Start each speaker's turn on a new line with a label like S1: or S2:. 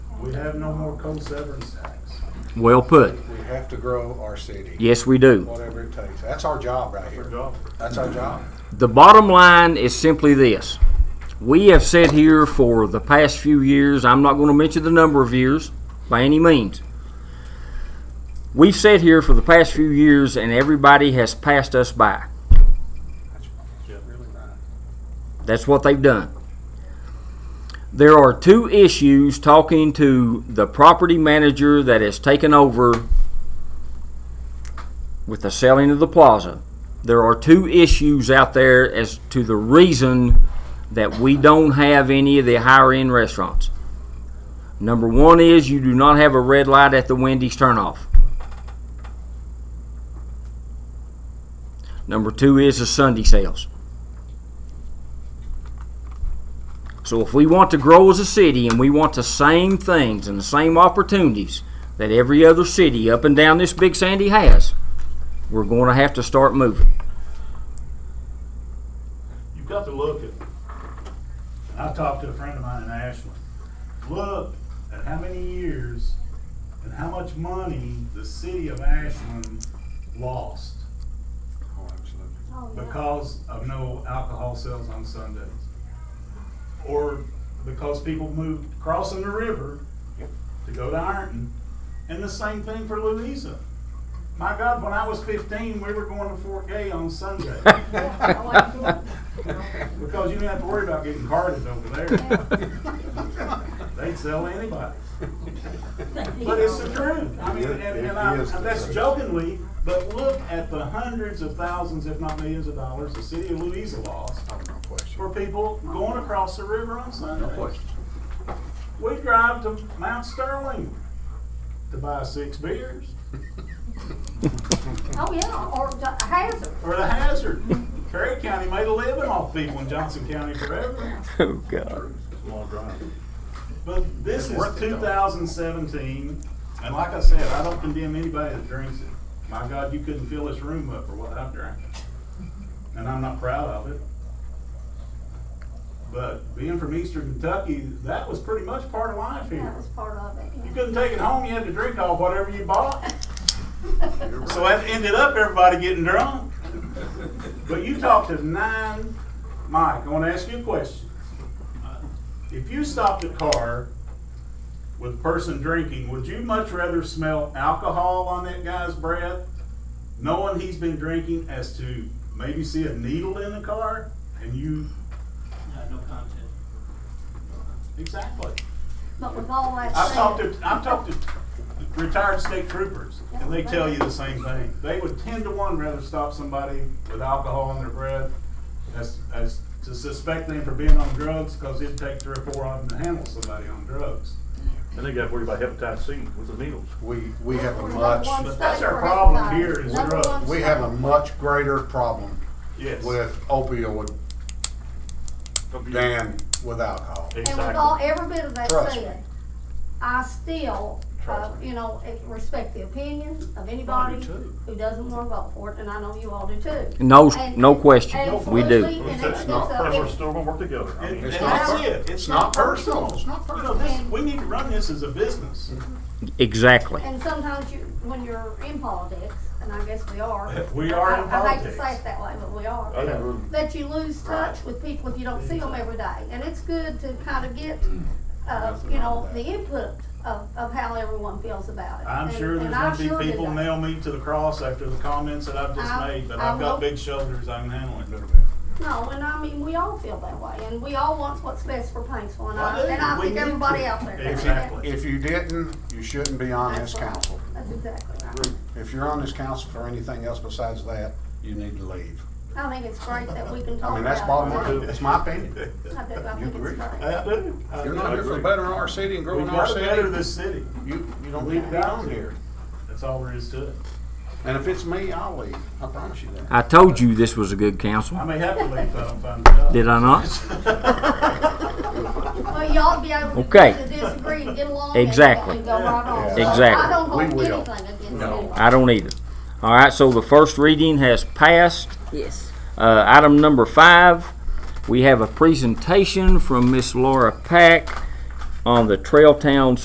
S1: We have no more cold severance tax.
S2: Well put.
S3: We have to grow our city,
S2: Yes, we do.
S3: whatever it takes. That's our job right here. That's our job.
S2: The bottom line is simply this. We have said here for the past few years, I'm not going to mention the number of years by any means. We've sat here for the past few years and everybody has passed us by. That's what they've done. There are two issues talking to the property manager that has taken over with the selling of the plaza. There are two issues out there as to the reason that we don't have any of the higher end restaurants. Number one is you do not have a red light at the Wendy's turnoff. Number two is the Sunday sales. So if we want to grow as a city and we want the same things and the same opportunities that every other city up and down this big sandy has, we're going to have to start moving.
S4: You've got to look at,
S1: I talked to a friend of mine in Ashland. Look at how many years and how much money the city of Ashland lost
S3: Oh, absolutely.
S1: because of no alcohol sales on Sundays. Or because people moved crossing the river to go to Ironton. And the same thing for Louisa. My God, when I was fifteen, we were going to Fort Gay on Sunday. Because you didn't have to worry about getting carded over there. They'd sell anybody. But it's the truth. I mean, and, and I,
S3: It is the
S1: that's
S3: truth.
S1: jokingly, but look at the hundreds of thousands, if not millions of dollars, the city of Louisa lost
S3: Oh, No
S1: for
S3: question.
S1: people going across the river on
S3: No
S1: Sunday.
S3: question.
S1: We drive to Mount Sterling to buy six beers,
S5: Oh, yeah, or the hazard.
S1: or the hazard. Perry County made a living off people in Johnson County forever.
S2: Oh, God.
S1: But this
S3: It's
S1: is
S3: worth it, though.
S1: 2017, and like I said, I don't condemn anybody that drinks it. My God, you couldn't fill this room up for what I've drank, and I'm not proud of it. But being from Eastern Kentucky, that was pretty much part of life
S5: That
S1: here.
S5: was part of it.
S1: You couldn't take it home; you had to drink all whatever you bought. So that ended up everybody getting drunk. But you talked to nine, Mike, I wanna ask you a question. If you stopped a car with a person drinking, would you much rather smell alcohol on that guy's breath? Knowing he's been drinking as to maybe see a needle in the car and you,
S6: no content.
S1: exactly.
S5: But with all that
S1: I've talked
S5: said,
S1: to, I've talked to retired state troopers, and they tell you the same thing. They would ten to one rather stop somebody with alcohol in their breath as, as to suspect them for being on drugs, cause it'd take three or four of them to handle somebody on drugs.
S4: and they got worried about hepatitis C with the needles.
S3: We, we have a
S5: Number
S3: much,
S5: one
S1: But that's
S5: state
S1: our
S5: for
S1: problem
S5: everybody.
S1: here is
S5: Number
S1: drugs.
S5: one
S3: we have a
S5: state.
S3: much greater problem
S1: Yes.
S3: with opioid than with alcohol.
S5: And with all,
S4: Exactly.
S5: every bit of that
S3: Trust me.
S5: said, I still, uh,
S3: Trust me.
S5: you know, eh, respect the opinion of anybody
S4: too.
S5: who doesn't wanna vote for it, and I know you all do too.
S2: No,
S5: And-
S2: no question.
S5: and
S2: We do.
S5: absolutely, and it's-
S3: That's not
S5: it's a-
S4: But we're still gonna work together. I
S1: And
S4: mean,
S1: and
S3: It's
S1: that's
S3: not per-
S1: it.
S3: It's not personal. It's not
S1: You know,
S3: personal.
S1: this, we need to run this as a business.
S2: Exactly.
S5: And sometimes you, when you're in politics, and I guess we are.
S1: We are in
S5: I- I hate to say
S1: politics.
S5: it that way, but we are.
S4: I never-
S5: that you lose touch with people if you don't see them every day. And it's good to kind of get,
S3: Mm.
S5: uh, you know, the input of, of how everyone feels about it.
S1: I'm
S5: And-
S1: sure
S5: and
S1: there's
S5: I
S1: gonna
S5: sure
S1: be
S5: did
S1: people
S5: that.
S1: nail me to the cross after the comments that I've just
S5: I-
S1: made, but
S5: I
S1: I've got
S5: will-
S1: big shoulders, I can handle it.
S5: No, and I mean, we all feel that way, and we all want what's best for Paintsville, and
S1: I
S5: I,
S1: do.
S5: and I
S1: We
S5: think
S1: need
S5: everybody
S1: to.
S5: out there. does that.
S1: Exactly.
S3: If you didn't, you shouldn't be on this council.
S5: That's exactly right.
S3: If you're on this council for anything else besides that, you need to leave.
S5: I think it's great that we can talk about it.
S3: I mean, that's bottom line. It's my opinion.
S5: I do, I
S3: You
S5: think
S3: agree?
S5: it's great.
S1: I do. I
S3: You're
S1: do.
S3: not here for
S4: agree.
S3: bettering our city and
S1: We've
S3: growing our
S1: got to better
S3: city.
S1: this city.
S3: You, you don't need to be on here.
S1: That's all there is to it.
S3: And if it's me, I'll leave. I promise you that.
S2: I told you this was a good council.
S1: I may have to leave if I don't find a job.
S2: Did I not?
S5: Well, y'all be able
S2: Okay.
S5: to disagree and get along and-
S2: Exactly.
S5: and go right on. So
S2: Exactly.
S5: I don't
S3: We
S5: hold
S3: will.
S5: anything against
S3: No.
S5: anybody.
S2: I don't either. All right, so the first reading has passed.
S7: Yes.
S2: Uh, item number five, we have a presentation from Miss Laura Pack on the Trail Town